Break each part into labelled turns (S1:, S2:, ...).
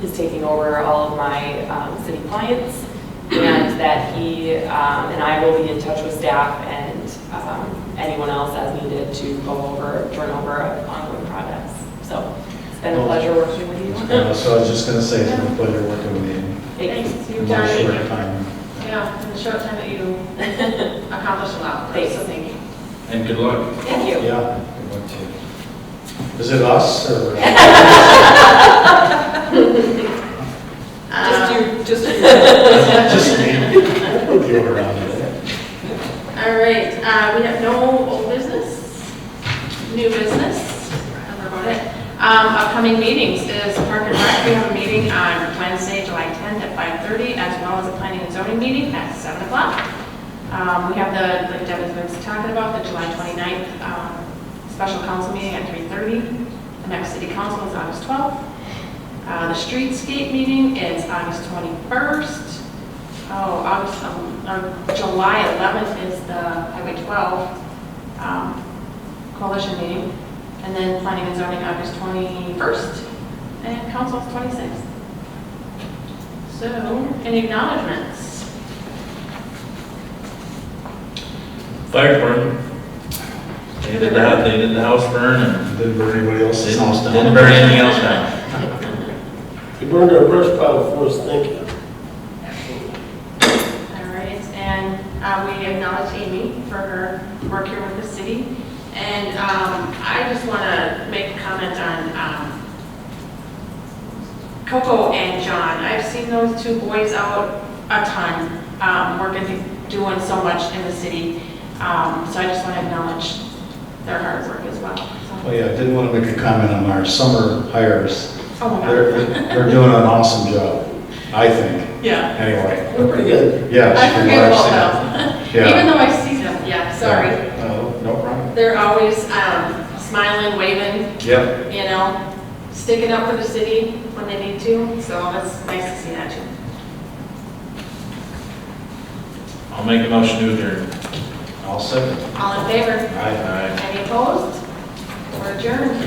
S1: who's taking over all of my um, city clients, and that he um, and I will be in touch with staff and um, anyone else as needed to go over, turn over ongoing projects. So it's been a pleasure working with you.
S2: Uh, So I was just going to say, it's been a pleasure working with you
S1: Thank you.
S3: Thanks,
S2: in
S3: you've
S2: a very
S3: done,
S2: short
S3: it.
S2: time.
S3: you know, in the short time that you accomplished a lot, so
S1: Thanks.
S3: thank you.
S4: And good luck.
S1: Thank you.
S2: Yeah. good luck to you. Is it us or?
S1: Just
S3: Um,
S1: you, just you.
S2: Just me. You're around it.
S3: All right, uh, we have no old business, new business, I wrote it. Um, upcoming meetings is Park and Rec, we have a meeting on Wednesday, July 10th at 5:30, as well as a planning and zoning meeting at 7 o'clock. Um, we have the, like Devin's been talking about, the July 29th, um, special council meeting at 3:30. The next city council is August 12th. Uh, the streetscape meeting is August 21st. Oh, August, um, um, July 11th is the Highway 12 um, coalition meeting, and then planning and zoning August 21st, and council 26th. So, any acknowledgements?
S4: Fire department. They did the, house- they did the house burn and
S2: Didn't burn anybody else's house
S4: didn't
S2: down.
S4: didn't burn anything else down.
S5: You burned our brush pile for us, thank you.
S3: All right, and uh, we acknowledge Amy for her work here with the city. And um, I just want to make a comment on um, Coco and John. I've seen those two boys out a ton, um, working, doing so much in the city. Um, So I just want to acknowledge their hard work as well.
S2: Oh,
S3: So-
S2: yeah, I didn't want to make a comment on our summer hires.
S3: Oh, my
S2: They're,
S3: God.
S2: they're doing an awesome job, I think,
S3: Yeah.
S2: anyway.
S5: We're pretty good.
S2: Yeah.
S3: I
S2: she can
S3: forget
S2: watch
S3: about
S2: that.
S3: them.
S2: Yeah.
S3: Even though I see them, yeah, sorry.
S2: Yeah. No, no problem.
S3: They're always um, smiling, waving,
S2: Yep,
S3: you know, sticking up for the city when they need to, so it's nice to see that too.
S4: I'll make a motion to adjourn.
S2: I'll second.
S3: All in favor?
S2: Aye.
S4: Aye.
S3: Any opposed? Or adjourned?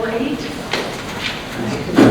S3: Or eight?